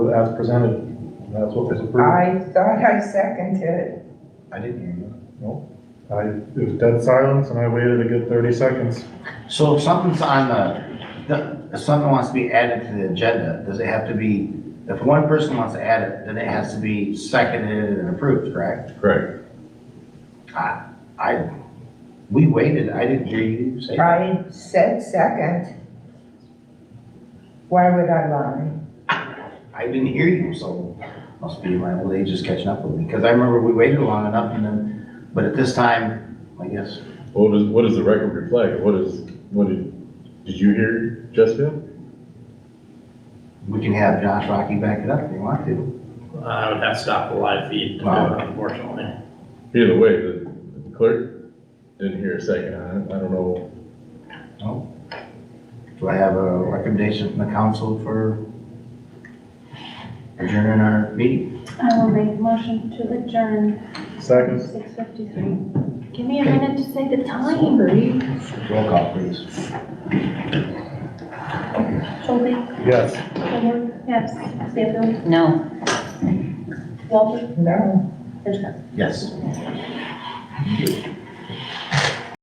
as presented. And That's what was approved. I thought I seconded. I didn't hear you. I, it was dead silence and I waited a good thirty seconds. So if something's on the- the, if something wants to be added to the agenda, does it have to be, if one person wants to add it, then it has to be seconded and approved, correct? Correct. I, I, we waited, I didn't hear you say. that. I said second. Why would I lie? I didn't hear you, so must be my old age is catching up with me. Because I remember we waited long enough and then, but at this time, I guess, What does, what does the record reflect? What is, what did, did you hear, Jessica? we can have Josh Rocky back it up if you want to. Uh, I would have to stop the live feed to do Wow. it, unfortunately. Either way, the clerk didn't hear a second. I, I don't know. Do I have a recommendation from the council for adjourning our meeting? I will make a motion to adjourn Seconds. six fifty-three. Give me a minute to say the time. Roll call, please. Schultz, Yes. Schulberg, yes, Stanfield, No. Walter, No. Hitchcock. Yes.